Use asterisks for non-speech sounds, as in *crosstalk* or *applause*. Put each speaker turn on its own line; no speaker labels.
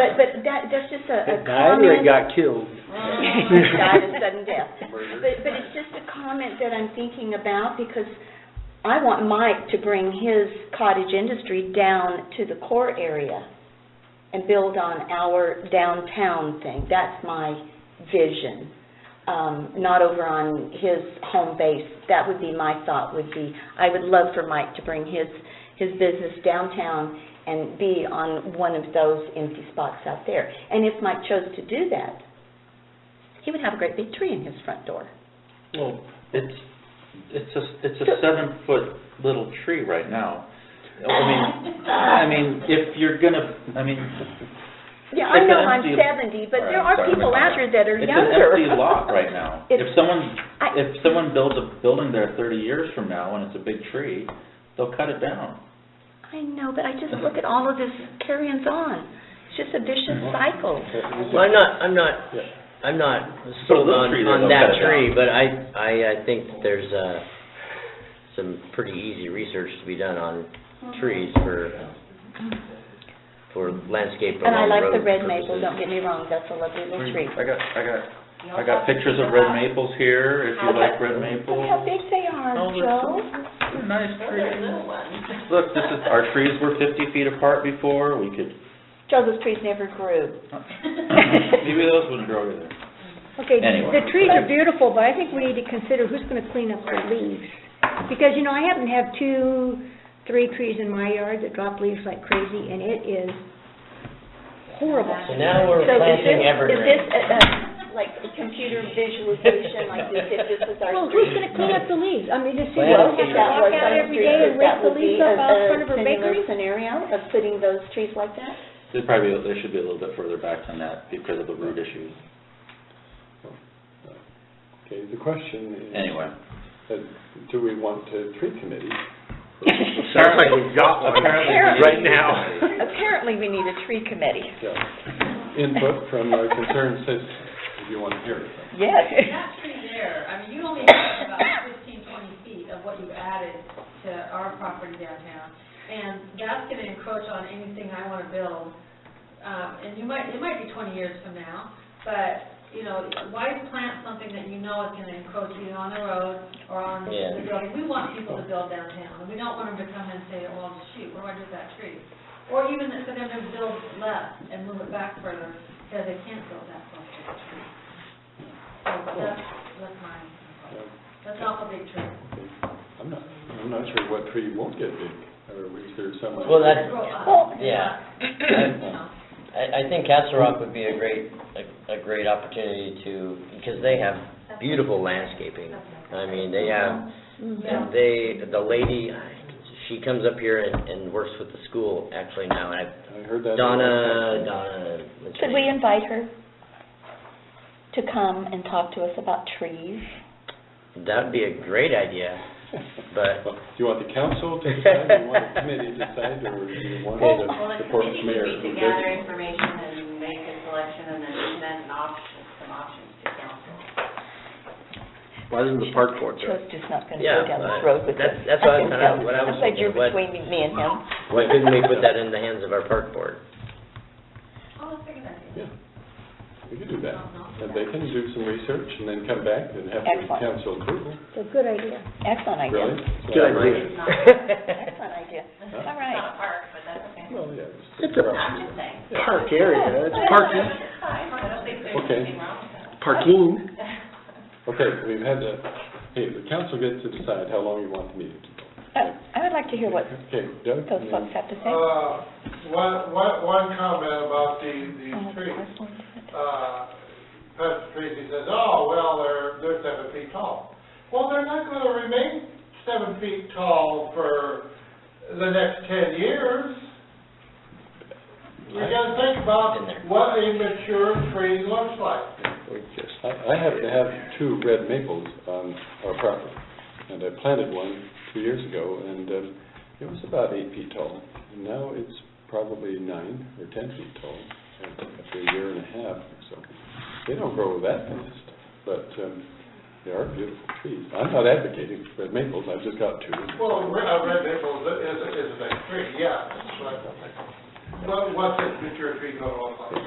but that, that's just a, a
It died or
comment.
it got killed?
*laughs*
Mm.
Died a sudden death. But, but it's just a comment that I'm thinking about because I want Mike to bring his cottage industry down to the core area and build on our downtown thing. That's my vision, um, not over on his home base. That would be my thought would be, I would love for Mike to bring his, his business downtown and be on one of those empty spots out there. And if Mike chose to do that, he would have a great big tree in his front door.
Well, it's, it's a, it's a seven-foot little tree right now. I mean, I mean, if you're gonna, I mean,
Yeah, I
It's
know
an
I'm
empty-
seventy, but
All right,
there are
sorry,
people
I'm
out here that are
it's an
younger.
empty lot right now.
*laughs* It's-
If someone,
I-
if someone builds a building there thirty years from now and it's a big tree, they'll cut it down.
I know, but I just look at all of this carrying on. It's just a vicious
Mm-hmm.
cycle.
Well, I'm not, I'm not, I'm not sold
little
on,
tree
on
that'll cut
that
it
tree,
down.
but I, I, I think that there's, uh, some pretty easy research to be done on trees for, for landscape
And I
along
like the
road
red maple,
purposes.
don't get me wrong, that's a lovely little tree.
I got, I got, I got pictures of red maples here, if you like red
Look how
maple.
big they are,
Oh, they're
Joe.
Nice tree. *laughs* Look, this is, our trees were fifty feet apart before, we could,
Joe, those trees never grew.
maybe those wouldn't grow either.
Okay,
Anyway.
the trees are beautiful, but I think we need to consider who's gonna clean up the leaves. Because, you know, I happen to have two, three trees in my yard that drop leaves like crazy, and it is horrible.
So now we're
So is this, is
planting
this,
evergreen.
uh, uh, like a computer visualization like this, if this was our
Well,
tree?
who's gonna clean up the leaves? I mean, does she
Well,
have to walk out every day and rake the leaves up out in front of her bakery?
That would be a- a similar scenario of putting those trees like that?
They probably, they should be a little bit further back than that because of the root issues.
Okay, the question is.
Anyway.
uh, Do we want a tree committee?
Sounds like we've got one right now.
Apparently, we need a tree committee.
Yeah. Input from our concerned citizens, if you want to hear it.
*laughs* Yes.
That tree there, I mean, you only have about fifteen, twenty feet of what you've added to our property downtown, and that's gonna encroach on anything I wanna build. Um, and you might, it might be twenty years from now, but, you know, why plant something that you know is gonna encroach either on the road or on
Yeah.
the building? We want people to build downtown, and we don't want them to come and say, well, shoot, what do I do with that tree? Or even for them to build less and move it back further, because they can't build that close to the tree. So that's, that's my, that's awful big tree.
I'm not, I'm not sure what tree won't get big, or is there someone?
Well, that-
Grow up.
Yeah.
You know.
I, I think Castle Rock would be a great, a, a great opportunity to, because they have beautiful landscaping. I mean, they have, and they, the lady, she comes up here and, and works with the school actually now, and I,
I heard that. *laughs*
Donna, Donna. what's her
Could we
name?
invite her to come and talk to us about trees?
That'd be a great idea, but,
Well, Do you want the council to decide, do you want the committee to decide, or do you want
Well,
the
the
support
committee
mayor?
would
who
meet to
does-
gather information and make a selection and then present an option, some options to council.
why doesn't the park board do it?
Joe's just not gonna
Yeah,
go down
but
this road with us.
that's- that's what
*laughs*
I- what I- what I was
am glad you're
thinking, what-
between me- me and him.
Why couldn't *laughs* we put that in the hands of our park board?
Oh, let's think about it.
Yeah, we could do that, and they can do some research and then come back and have the
Excellent.
council approval,
It's a good idea.
Excellent
really?
idea.
Yeah,
Good idea.
It's not,
Excellent idea. All
Huh?
it's
right.
not a park, but that's okay.
Well, yeah. it's-
It's a
I'm just saying.
park area, it's parking,
It's fine, I don't think there's anything
Okay.
wrong with that.
parking.
Okay, we've had the, hey, the council gets to decide how long you want the meeting to go.
Uh, I would like to hear what
Okay, Doug?
those folks have to say.
Uh, One, one, one comment about the, the
Oh,
trees.
that's one.
Uh, Pastor Tracy says, oh, well, they're, they're seven feet tall. Well, they're not gonna remain seven feet tall for the next ten years. You gotta think about
Been there.
what a mature tree looks like.
I, I happen to have two red maples on our property, and I planted one two years ago, and, um, it was about eight feet tall. And Now it's probably nine or ten feet tall, after a year and a half or so. They don't grow that fast, but, um, they are beautiful trees. I'm not advocating red maples, I've just got two.
Well, a re- a red maple is, a- is a- is a big tree, yeah, but, but what's a mature tree gonna look like?